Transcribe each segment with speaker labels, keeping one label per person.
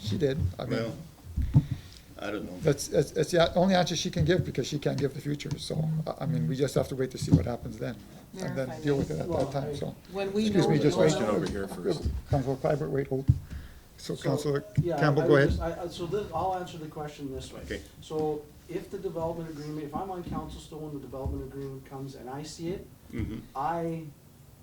Speaker 1: she did. I mean,
Speaker 2: Well, I don't know.
Speaker 1: that's, that's, that's the only answer she can give, because she can't give the future, so, I, I mean, we just have to wait to see what happens then, and then
Speaker 3: Verify
Speaker 1: deal
Speaker 3: that.
Speaker 1: with it at that time, so.
Speaker 3: When we
Speaker 1: Excuse
Speaker 3: know
Speaker 1: me,
Speaker 3: the
Speaker 1: just wait.
Speaker 3: Question
Speaker 4: over here first.
Speaker 1: Councilor Clyburn, wait, hold. So
Speaker 4: So,
Speaker 1: Councilor
Speaker 4: yeah,
Speaker 1: Campbell,
Speaker 4: I
Speaker 1: go
Speaker 4: would
Speaker 1: ahead.
Speaker 4: just- I- I- So this, I'll answer the question this way.
Speaker 2: Okay.
Speaker 4: So if the development agreement, if I'm on council still when the development agreement comes and I see it,
Speaker 2: Mhm.
Speaker 4: I,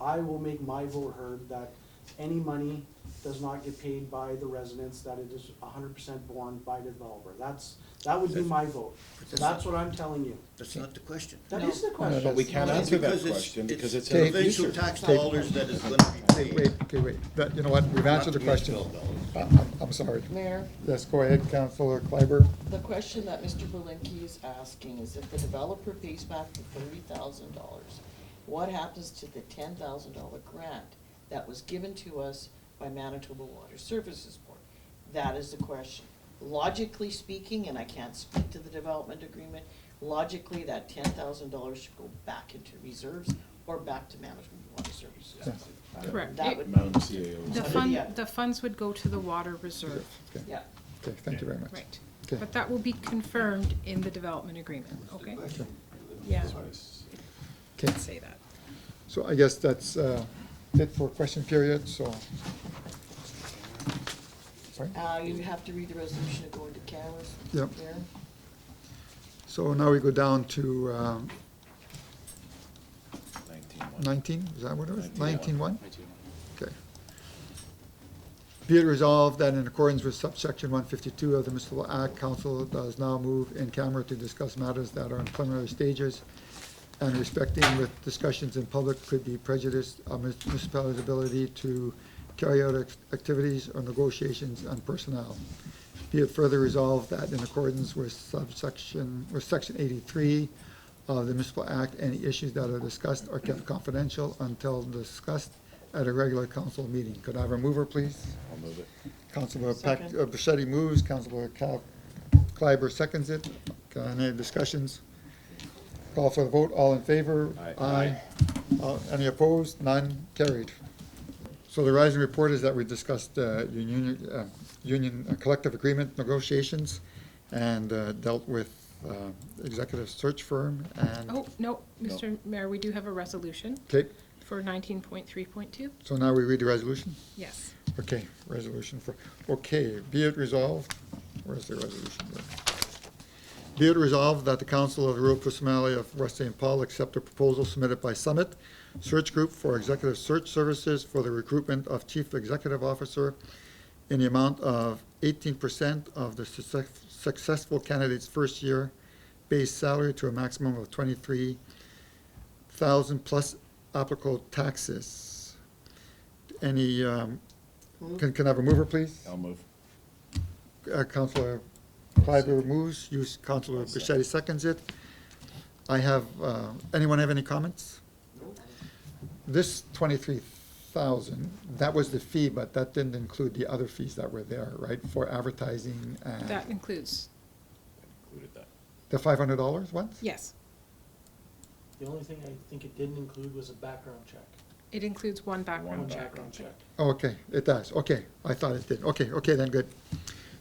Speaker 4: I will make my vote heard that any money does not get paid by the residents, that it is hundred percent borne by the developer. That's, that would be my vote. So that's what I'm telling you.
Speaker 2: That's not the question.
Speaker 4: That is the
Speaker 1: No, no, but
Speaker 4: question.
Speaker 5: But we can't answer that
Speaker 2: Because it's-
Speaker 5: question because it's in
Speaker 1: Take-
Speaker 5: the
Speaker 2: Provincial
Speaker 5: future.
Speaker 2: tax dollars that is gonna be paid.
Speaker 1: Wait, okay, wait, that, you know what, we've answered the
Speaker 2: Not municipal
Speaker 1: question.
Speaker 2: dollars.
Speaker 1: I- I'm, I'm sorry.
Speaker 3: Mayor,
Speaker 1: Yes, go ahead, Councilor Clyburn.
Speaker 3: the question that Mr. Belinky is asking is if the developer pays back the thirty thousand dollars, what happens to the ten thousand dollar grant that was given to us by Manitoba Water Services Board? That is the question. Logically speaking, and I can't speak to the development agreement, logically, that ten thousand dollars should go back into reserves or back to Manitoba Water Services.
Speaker 6: Correct.
Speaker 3: That would,
Speaker 5: Madam E CAO.
Speaker 6: The
Speaker 3: Under
Speaker 6: fund,
Speaker 3: the-
Speaker 6: the funds would go to the water reserve,
Speaker 1: Okay,
Speaker 3: yeah.
Speaker 1: okay, thank you very much.
Speaker 6: right.
Speaker 1: Okay.
Speaker 6: But that will be confirmed in the development agreement, okay? Yeah,
Speaker 1: Okay,
Speaker 6: say that.
Speaker 1: so I guess that's, uh, it for question period, so. Sorry?
Speaker 3: Uh, you have to read the resolution to go into cameras.
Speaker 1: Yep.
Speaker 3: Darren?
Speaker 1: So now we go down to, um, nineteen, is that what it was? Nineteen one? Okay. Be it resolved that in accordance with subsection one fifty-two of the municipal act, council does now move in camera to discuss matters that are in preliminary stages and respecting with discussions in public could be prejudiced of mun- municipality's ability to carry out act- activities or negotiations on personnel. Be it further resolved that in accordance with subsection, with section eighty-three of the municipal act, any issues that are discussed are kept confidential until discussed at a regular council meeting. Could I have a mover, please?
Speaker 5: I'll move it.
Speaker 1: Councilor Pac,
Speaker 3: Second.
Speaker 1: uh, Bichetti moves, Councilor Cal, Clyber seconds it. Okay, Any discussions? Call for the vote, all in favor?
Speaker 5: Aye.
Speaker 1: Aye. Uh, Any opposed? None, carried. So the rising report is that we discussed uh, union, uh, union uh, collective agreement negotiations and uh, dealt with uh, executive search firm and,
Speaker 6: Oh, no, Mr. Mayor, we do have a resolution
Speaker 1: okay,
Speaker 6: for nineteen point three point two,
Speaker 1: so now we read the resolution?
Speaker 6: yes.
Speaker 1: Okay, resolution for, okay, be it resolved, where's the resolution? Be it resolved that the Council of the Rural Personality of West St. Paul accept a proposal submitted by Summit Search Group for executive search services for the recruitment of chief executive officer in the amount of eighteen percent of the success- successful candidate's first year base salary to a maximum of twenty-three thousand plus applicable taxes. Any, um, can, can I have a mover, please?
Speaker 5: I'll move.
Speaker 1: Uh, Counselor Clyber moves, you, s- Counselor Bichetti seconds it. I have, uh, anyone have any comments? This twenty-three thousand, that was the fee, but that didn't include the other fees that were there, right, for advertising
Speaker 6: That
Speaker 1: and
Speaker 6: includes,
Speaker 5: Included that.
Speaker 1: the five hundred dollars one?
Speaker 6: yes,
Speaker 4: The only thing I think it didn't include was a background check.
Speaker 6: it includes one background
Speaker 5: One
Speaker 6: check.
Speaker 5: background check.
Speaker 1: Okay, it does, okay, I thought it did, okay, okay, then, good.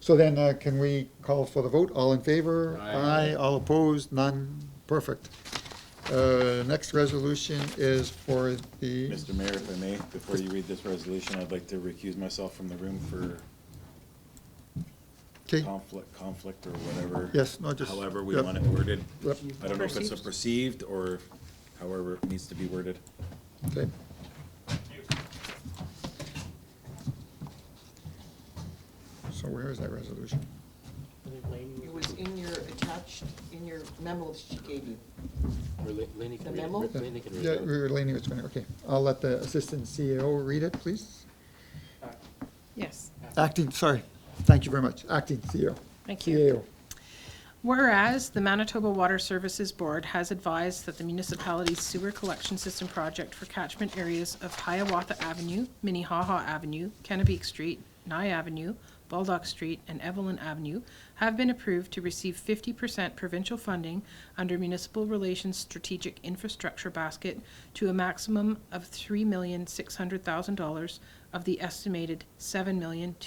Speaker 1: So then, uh, can we call for the vote, all in favor?
Speaker 5: Aye.
Speaker 1: all opposed, none, perfect. Uh, next resolution is for the.
Speaker 5: Mr. Mayor, if I may, before you read this resolution, I'd like to recuse myself from the room for
Speaker 1: Okay,
Speaker 5: conflict, conflict or whatever.
Speaker 1: Yes, no, just-
Speaker 5: However we
Speaker 1: yep.
Speaker 5: want it worded.
Speaker 1: Yep.
Speaker 5: I don't know if it's a perceived or however it needs to be worded.
Speaker 1: okay. So where is that resolution?
Speaker 4: I think Laney
Speaker 3: It
Speaker 4: was-
Speaker 3: was in your attached, in your memo that she gave you.
Speaker 7: Or La- Laney
Speaker 3: The
Speaker 7: can read,
Speaker 3: memo?
Speaker 1: Yeah,
Speaker 7: Laney can read
Speaker 1: yeah,
Speaker 7: it.
Speaker 1: we're leaning it's going, okay, I'll let the Assistant CEO read it, please.
Speaker 6: Yes,
Speaker 1: Acting, sorry, thank you very much, Acting E CEO.
Speaker 6: thank you.
Speaker 1: CEO.
Speaker 6: Whereas the Manitoba Water Services Board has advised that the municipality's sewer collection system project for catchment areas of Hiawatha Avenue, Minnehaha Avenue, Kennebec Street, Nye Avenue, Baldock Street, and Evelyn Avenue have been approved to receive fifty percent provincial funding under Municipal Relations Strategic Infrastructure Basket to a maximum of three million six hundred thousand dollars of the estimated seven million two